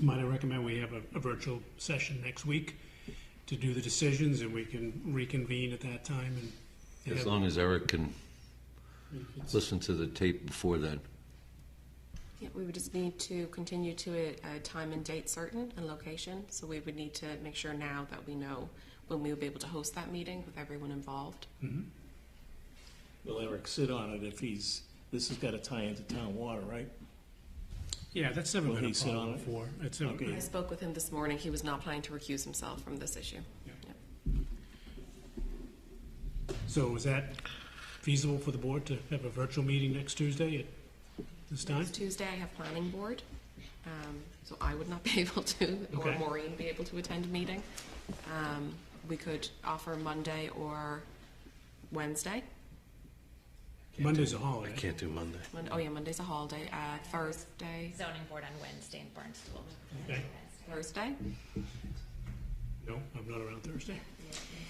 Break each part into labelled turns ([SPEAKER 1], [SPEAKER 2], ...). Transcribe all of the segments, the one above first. [SPEAKER 1] might I recommend we have a, a virtual session next week to do the decisions and we can reconvene at that time and- and.
[SPEAKER 2] As
[SPEAKER 1] have-
[SPEAKER 2] long as Eric can
[SPEAKER 1] it's-
[SPEAKER 2] listen to the tape before then.
[SPEAKER 3] Yeah, we would just need to continue to a, a time and date certain and location. So we would need to make sure now that we know when we would be able to host that meeting with everyone involved.
[SPEAKER 4] Will Eric sit on it if he's, this has got to tie into town water, right?
[SPEAKER 1] Yeah, that's never
[SPEAKER 4] Will
[SPEAKER 1] been a
[SPEAKER 4] he sit
[SPEAKER 1] problem
[SPEAKER 4] on it?
[SPEAKER 1] before. It's never-
[SPEAKER 4] Okay.
[SPEAKER 3] I spoke with him this morning. He was not planning to recuse himself from this issue.
[SPEAKER 1] So is that feasible for the board to have a virtual meeting next Tuesday at this time?
[SPEAKER 3] Next Tuesday, I have planning board. Um, so I would not be able to, or
[SPEAKER 1] Okay.
[SPEAKER 3] Maureen be able to attend a meeting. Um, we could offer Monday or Wednesday.
[SPEAKER 1] Monday's a holiday.
[SPEAKER 5] Can't do Monday.
[SPEAKER 3] Mon- oh yeah, Monday's a holiday. Uh, Thursday,
[SPEAKER 6] zoning board on Wednesday in Barnstable.
[SPEAKER 1] Okay.
[SPEAKER 3] Thursday,
[SPEAKER 1] No, I'm not around Thursday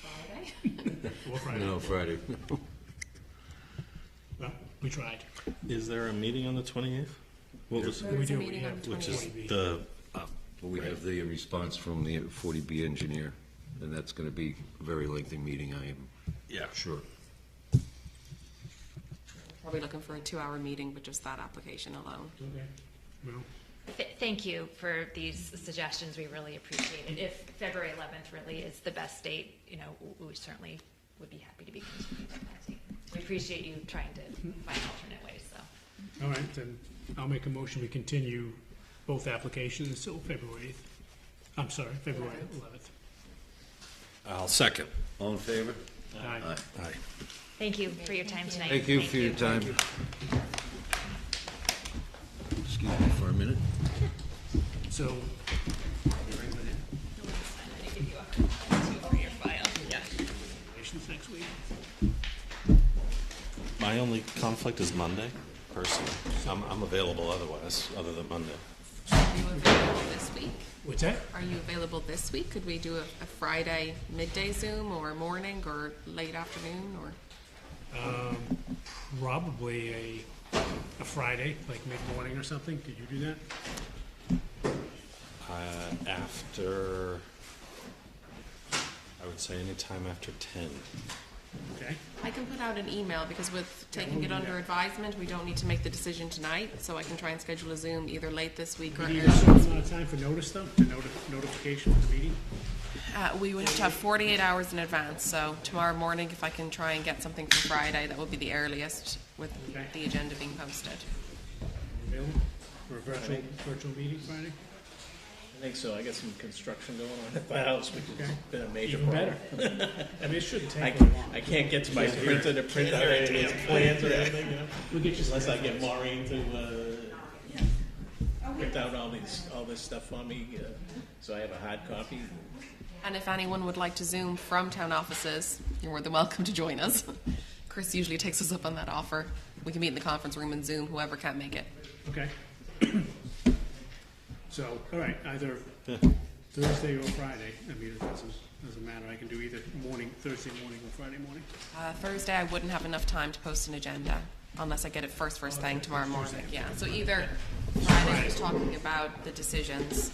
[SPEAKER 3] Friday.
[SPEAKER 1] or Friday.
[SPEAKER 2] No, Friday.
[SPEAKER 1] Well, we tried.
[SPEAKER 5] Is there a meeting on the 28th? What was,
[SPEAKER 3] There is a
[SPEAKER 1] do, we
[SPEAKER 3] meeting on
[SPEAKER 1] have-
[SPEAKER 3] the
[SPEAKER 5] which is
[SPEAKER 3] 28th.
[SPEAKER 5] the,
[SPEAKER 2] We have the response from the 40B engineer, and that's going to be a very lengthy meeting, I am
[SPEAKER 5] yeah,
[SPEAKER 2] sure.
[SPEAKER 3] Probably looking for a two-hour meeting with just that application alone.
[SPEAKER 1] Okay. Well,
[SPEAKER 6] Th- Thank you for these suggestions, we really appreciate it. If February 11th really is the best date, you know, w- we certainly would be happy to be continued on that date. We appreciate you trying to find alternate ways, so.
[SPEAKER 1] all right, then I'll make a motion, we continue both applications until February 8th. I'm sorry, February 11th.
[SPEAKER 5] I'll second.
[SPEAKER 2] All in favor?
[SPEAKER 1] Aye.
[SPEAKER 2] Aye.
[SPEAKER 5] Aye.
[SPEAKER 6] Thank you for your time tonight.
[SPEAKER 2] Thank you for your time. Excuse me for a minute.
[SPEAKER 1] So relations next week.
[SPEAKER 5] My only conflict is Monday, personally. I'm, I'm available otherwise, other than Monday.
[SPEAKER 3] Are you available this week?
[SPEAKER 1] What's that?
[SPEAKER 3] Are you available this week? Could we do a, a Friday midday Zoom or morning or late afternoon or?
[SPEAKER 1] Probably a, a Friday, like mid-morning or something. Could you do that?
[SPEAKER 5] Uh, After, I would say anytime after 10.
[SPEAKER 1] Okay.
[SPEAKER 3] I can put out an email because with taking it under advisement, we don't need to make the decision tonight. So I can try and schedule a Zoom either late this week or
[SPEAKER 1] Do you
[SPEAKER 3] early.
[SPEAKER 1] need a certain amount of time for notice though, to noti- notification of the meeting?
[SPEAKER 3] Uh, we would have to have forty-eight hours in advance. So tomorrow morning, if I can try and get something for Friday, that would be the earliest with
[SPEAKER 1] Okay.
[SPEAKER 3] the agenda being posted.
[SPEAKER 1] Available for a virtual, virtual meeting Friday?
[SPEAKER 4] I think so. I got some construction going on at the house, which has
[SPEAKER 1] Okay.
[SPEAKER 4] been a major
[SPEAKER 1] Even
[SPEAKER 4] problem.
[SPEAKER 1] better. I mean, it shouldn't
[SPEAKER 4] I,
[SPEAKER 1] take long.
[SPEAKER 4] I can't get to my printer to print out any of these plans or anything, you know?
[SPEAKER 1] We'll get you some.
[SPEAKER 4] Unless I get Maureen to, uh, print out all these, all this stuff for me, uh, so I have a hard copy.
[SPEAKER 3] And if anyone would like to Zoom from town offices, you're more than welcome to join us. Chris usually takes us up on that offer. We can meet in the conference room and Zoom, whoever can't make it.
[SPEAKER 1] Okay. So, all right, either Thursday or Friday. I mean, it doesn't, doesn't matter. I can do either morning, Thursday morning or Friday morning.
[SPEAKER 3] Uh, Thursday, I wouldn't have enough time to post an agenda unless I get it first, first thing tomorrow morning. Yeah, so either Friday, is talking about the decisions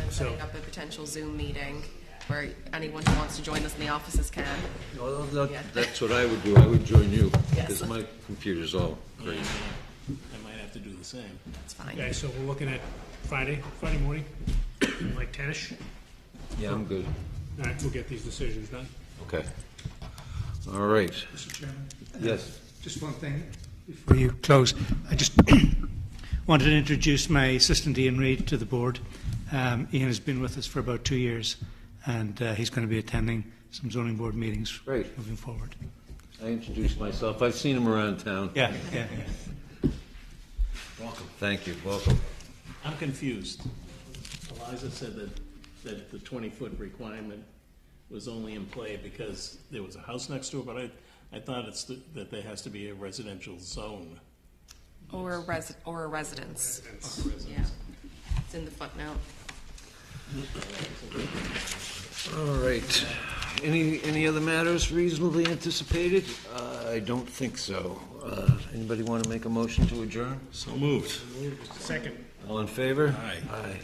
[SPEAKER 3] and setting up a potential Zoom meeting where anyone who wants to join us in the offices can.
[SPEAKER 2] Well, that- That's what I would do, I would join you, because
[SPEAKER 3] Yes.
[SPEAKER 2] my computer's all crazy.
[SPEAKER 4] I might have to do the same.
[SPEAKER 3] That's fine.
[SPEAKER 1] Okay, so we're looking at Friday, Friday morning, like ten-ish.
[SPEAKER 2] Yeah, I'm good.
[SPEAKER 1] All right, we'll get these decisions done.
[SPEAKER 2] Okay. All right,
[SPEAKER 7] Mr. Chairman,
[SPEAKER 2] yes.
[SPEAKER 7] just one thing before you close. I just wanted to introduce my assistant Ian Reid to the board. Um, Ian has been with us for about two years, and uh, he's going to be attending some zoning board meetings
[SPEAKER 2] Great.
[SPEAKER 7] moving forward.
[SPEAKER 2] I introduced myself, I've seen him around town.
[SPEAKER 7] Yeah, yeah, yeah.
[SPEAKER 2] Welcome. Thank you, welcome.
[SPEAKER 4] I'm confused. Eliza said that, that the twenty-foot requirement was only in play because there was a house next to it, but I, I thought it's, the- that there has to be a residential zone.
[SPEAKER 3] Or a resi, or a residence. Yeah. It's in the footnote.
[SPEAKER 2] All right, any, any other matters reasonably anticipated? Uh, I don't think so. Uh, Anybody want to make a motion to adjourn?
[SPEAKER 5] So moved.
[SPEAKER 1] Second.
[SPEAKER 2] All in favor?
[SPEAKER 5] Aye.
[SPEAKER 2] Aye.